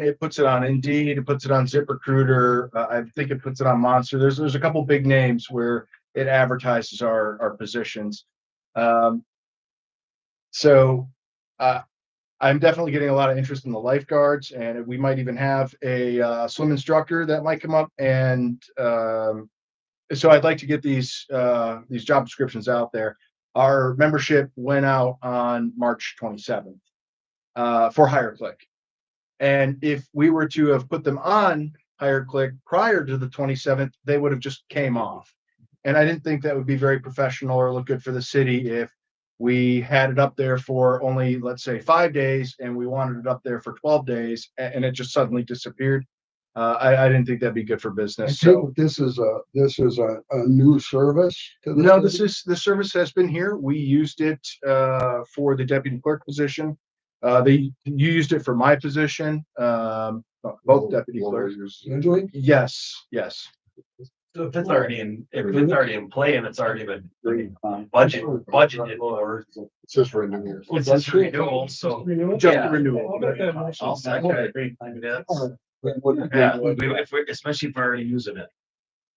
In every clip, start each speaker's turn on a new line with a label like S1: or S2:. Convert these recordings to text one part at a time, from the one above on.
S1: It puts it on Indeed, it puts it on ZipRecruiter, uh, I think it puts it on Monster. There's, there's a couple big names where it advertises our, our positions. Um, so, uh, I'm definitely getting a lot of interest in the lifeguards and we might even have a, uh, swim instructor that might come up and, um, so I'd like to get these, uh, these job descriptions out there. Our membership went out on March 27th, uh, for HireClick. And if we were to have put them on HireClick prior to the 27th, they would have just came off. And I didn't think that would be very professional or look good for the city if we had it up there for only, let's say, five days and we wanted it up there for 12 days a- and it just suddenly disappeared. Uh, I, I didn't think that'd be good for
S2: I
S1: business. So.
S2: think this is a, this is a, a new service to the.
S1: No, this
S2: city?
S1: is, the service has been here. We used it uh, for the deputy clerk position. Uh, They, you used it for my position, um, both deputy clerks.
S2: Usually,
S1: Yes, yes.
S3: So if it's already in, if it's already in play and it's already been budget,
S2: Budget-
S3: budgeted or.
S2: It says renewals.
S3: It's just renewal, so.
S1: Just
S3: Yeah.
S1: the renewal.
S3: I'll second it. That's- Yeah, we, if we, especially if we're already using it.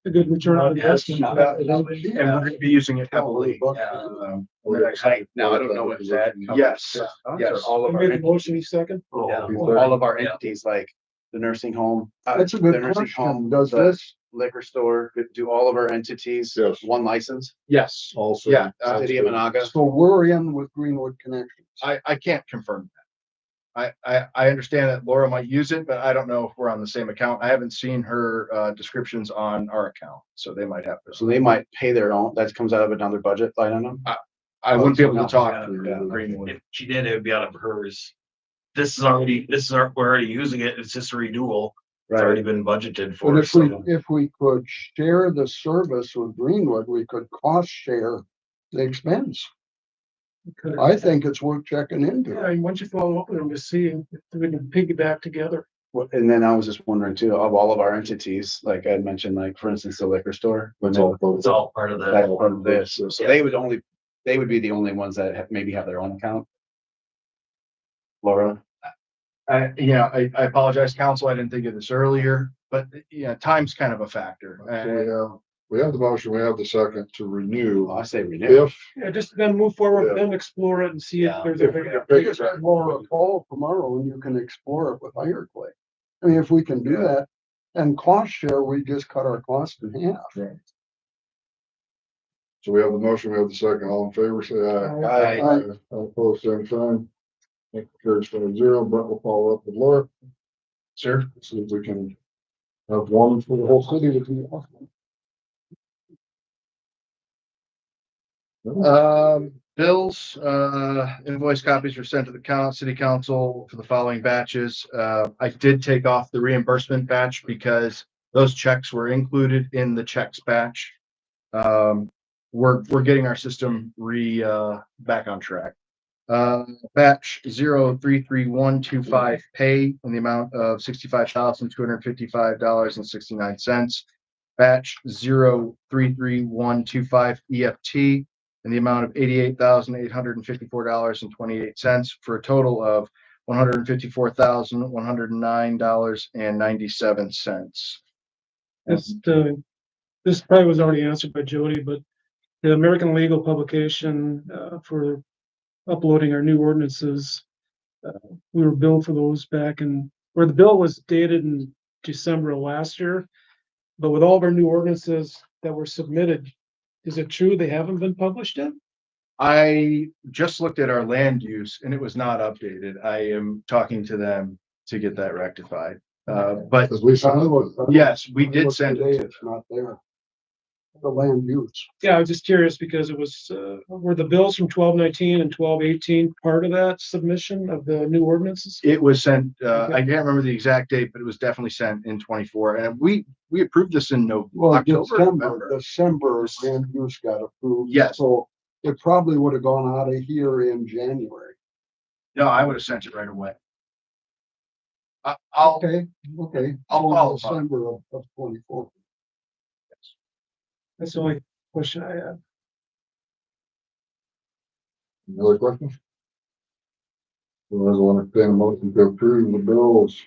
S4: a good return on
S3: Yes.
S4: investment.
S1: And we're going to be using it heavily. um, over the next-
S5: Now, I don't know what's that.
S1: Yes,
S5: Yes,
S1: yes.
S5: all
S4: I
S5: of
S4: made a
S5: our,
S4: motion, you second?
S3: Yeah.
S5: all of our
S3: Yeah.
S5: entities, like the nursing home. uh,
S2: That's a
S5: the
S2: good
S5: nursing
S2: question.
S5: home,
S2: Does
S5: the
S2: this,
S5: Liquor store, do all of our entities,
S6: Yes.
S5: one license, Uh,
S1: Yes.
S6: Also.
S1: Yeah. uh,
S6: Sounds
S5: city of
S6: good.
S5: Monaga.
S2: so we're in with Greenwood Connections.
S1: I, I can't confirm that. I, I, I understand that Laura might use it, but I don't know if we're on the same account. I haven't seen her uh, descriptions on our account, so they might have. this.
S5: So they might pay their own, that comes out of another budget line item.
S1: I wouldn't be able to
S5: No.
S1: talk to
S5: Yeah.
S1: Greenwood.
S3: If she did, it would be out of hers. This is already, this is, our- we're already using it. It's just a renewal. It's already been budgeted
S2: But
S3: for.
S2: if we,
S3: so-
S2: if we could share the service with Greenwood, we could cost share the expense.
S4: Could-
S2: I think it's worth checking
S4: Yeah,
S2: into.
S4: I mean, once you follow up with them to see if we can piggyback together.
S5: Well, And then I was just wondering too, of all of our entities, like I had mentioned, like for instance, the liquor store. when
S6: It's
S5: they-
S6: all both.
S3: It's all part of
S5: That's
S3: that.
S5: part of this, so they would only, they would be the only ones that have- maybe have their own account. Laura?
S1: I, you know, I, I apologize, council, I didn't think of this earlier, but, you know, time's kind of a factor.
S6: We
S1: And
S6: have, we have the motion, we have the second to renew.
S5: Well, I say renew.
S6: If,
S4: Yeah, just then move forward,
S6: Yeah.
S4: then explore it and see if
S3: Yeah.
S4: there's a
S6: if
S4: big.
S6: we can
S2: You
S6: pick
S2: just
S6: it
S2: have
S6: up.
S2: Laura a call tomorrow and you can explore it with HireClick. I mean, if we can do
S6: Yeah.
S2: that and cost share, we just cut our cost in half.
S6: So we have the motion, we have the second, all in favor, say aye.
S5: Aye.
S6: Aye. All opposed, same sign. Motion Carries five zero, Brent will follow up with Laura,
S1: Sir,
S6: see if we can have one for the whole city to be awesome.
S1: um, bills, uh, invoice copies were sent to the coun city council for the following batches. Uh, I did take off the reimbursement batch because those checks were included in the checks batch. Um, we're, we're getting our system re, uh, back on track. Uh, batch zero three three one two five pay in the amount of sixty-five thousand, two hundred fifty-five dollars and sixty-nine cents. Batch zero three three one two five E EFT in the amount of eighty-eight thousand, eight hundred and fifty-four dollars and twenty-eight cents for a total of one hundred and fifty-four thousand, one hundred and nine dollars and ninety-seven cents.
S4: This, uh, this probably was already answered by Jody, but the American Legal publication, uh, for uploading our new ordinances. uh, We were billed for those back in, where the bill was dated in December of last year. But with all of our new ordinances that were submitted, is it true they haven't been published yet?
S1: I just looked at our land use and it was not updated. I am talking to them to get that rectified. Uh, but
S6: Because we signed one.
S1: yes, we did send
S2: Today,
S1: it. to-
S2: it's not there. The land use.
S4: Yeah, I was just curious because it was, uh, were the bills from twelve nineteen and twelve eighteen part of that submission of the new ordinances?
S1: It was sent, uh,
S4: Okay.
S1: I can't remember the exact date, but it was definitely sent in twenty-four and we, we approved this in Nov-
S2: Well,
S1: October,
S2: December,
S1: November.
S2: December land use got approved.
S1: Yes.
S2: So it probably would have gone out of here in January.
S1: No, I would have sent it right away. I, I'll,
S2: Okay, okay.
S1: I'll
S2: So
S1: follow up.
S2: December of, of twenty-four.
S4: That's the only question I have.
S6: Any other questions? Otherwise, I want to entertain a motion to approve the bills